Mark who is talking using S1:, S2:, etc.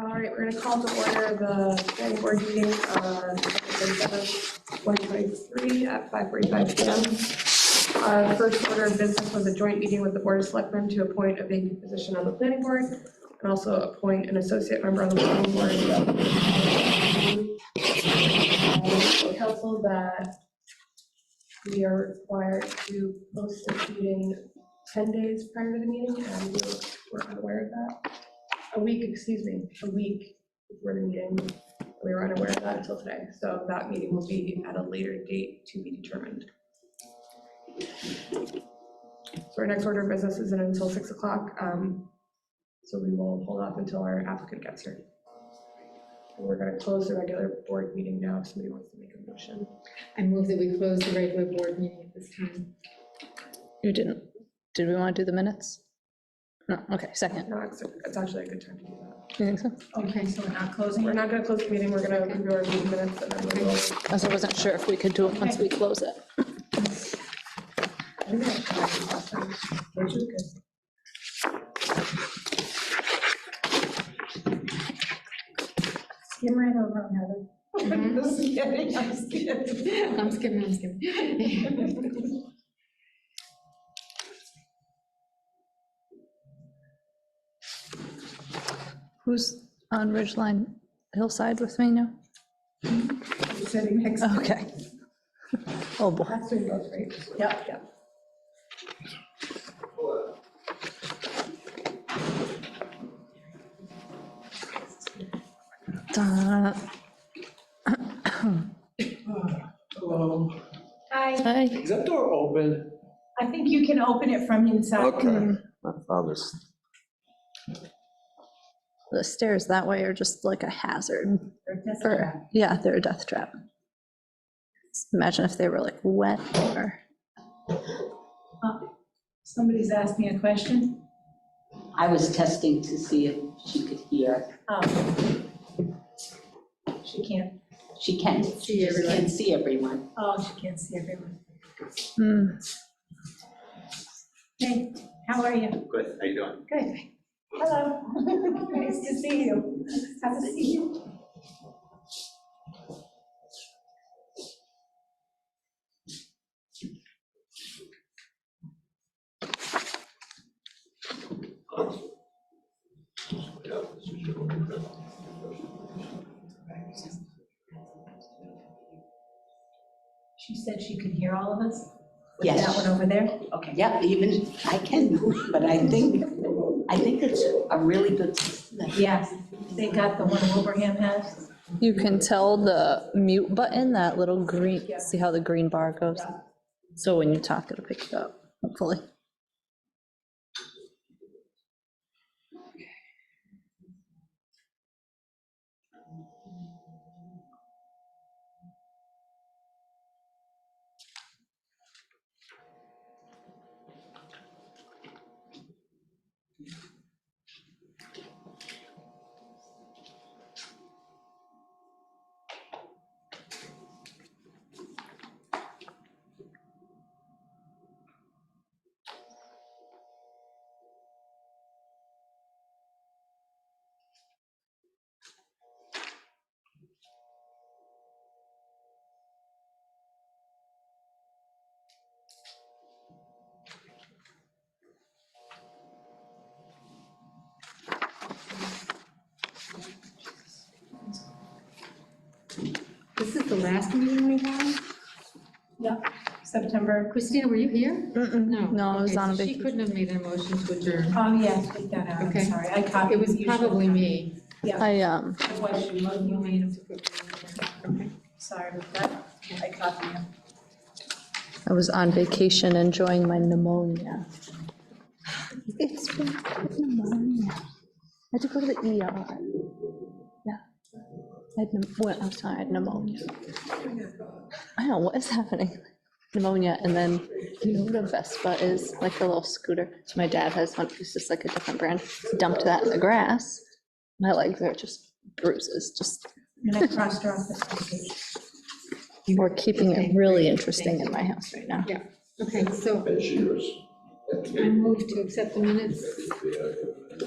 S1: All right, we're gonna call to order the planning board meeting on September 2023 at 5:45 PM. Our first order of business was a joint meeting with the Board of Selectmen to appoint a vacant position on the planning board and also appoint an associate member on the planning board. uh, Um, Council that we are required to post this meeting 10 days prior to the meeting, and we were unaware of that a week, excuse me, a week before the meeting. We were unaware of that until today, so that meeting will be at a later date to be determined. So our next order of business isn't until 6 o'clock, um, so we will hold off until our applicant gets here. And we're gonna close the regular board meeting now if somebody wants to make a motion.
S2: I move that we close the regular board meeting at this time.
S3: You didn't, did we want to do the minutes? No, okay, second,
S1: No, it's, it's actually a good time to do that.
S3: you think so?
S2: Okay, so we're not closing?
S1: We're not gonna close the meeting, we're gonna review our meeting minutes and then we will.
S3: I also wasn't sure if we could do it once we close it.
S1: I think I have time last time, which is good.
S4: Skim right over them, Heather.
S2: Mhm.
S4: Just kidding, I'm just kidding.
S2: I'm skipping, I'm skipping.
S3: Who's on Ridgeline Hillside with me now?
S4: Sitting next to
S3: Okay. Oh, boy.
S1: That's doing both, right?
S4: Yep, yep.
S3: Uh,
S5: Hello.
S4: Hi,
S3: Hi.
S5: Um, Is that door open?
S4: I think you can open it from inside.
S5: Okay. My father's.
S3: The stairs that way are just like a hazard
S4: That's right.
S3: for, yeah, they're a death trap. Imagine if they were like wet or,
S4: uh, Somebody's asked me a question.
S6: I was testing to see if she could hear.
S4: Um, She can't,
S6: She can.
S2: See
S6: She
S2: everyone.
S6: can see everyone.
S4: oh, she can't see everyone.
S3: Hmm,
S4: Hey, how are you?
S7: Good, how you doing?
S4: Good. Hello. Nice to see you. Have a seat. She said she could hear all of us? With
S6: Yes.
S4: That one over there? Okay.
S6: Yeah, even, I can, but I think, I think it's a really good system. that-
S4: Yes, they got the one Wilbraham has.
S3: you can tell the mute button, that little green,
S4: Yeah.
S3: see how the green bar goes?
S4: Yeah.
S3: So when you talk, it'll pick it up, hopefully.
S2: This is the last meeting we have?
S4: September,
S2: Christina, were you here?
S3: Mm-mm.
S2: No.
S3: No, I was
S2: Okay, so
S3: on a
S2: She
S3: vacation.
S2: couldn't have made a motion to adjourn.
S4: oh, yes, take that out, I'm
S2: Okay.
S4: sorry, I copied.
S2: It was
S4: you.
S2: probably me.
S3: I, um,
S4: It was you,
S2: You
S4: you
S2: made
S4: made,
S2: him to put me in. Okay.
S4: sorry about that, I copied you.
S3: I was on vacation enjoying my pneumonia. It's been pneumonia. I had to go to the ER. Yeah. I had, pneum- well, I'm sorry, I had pneumonia. I don't know what is happening. Pneumonia, and then you know what a Vespa is, like the little scooter. So my dad has one, it's just like a different brand. Dumped that in the grass. My legs are just bruises, just,
S4: And I crossed her off the page.
S3: we're keeping
S2: Okay,
S3: it really interesting in my house right now.
S2: Okay, so
S7: It's yours.
S2: I move to accept the minutes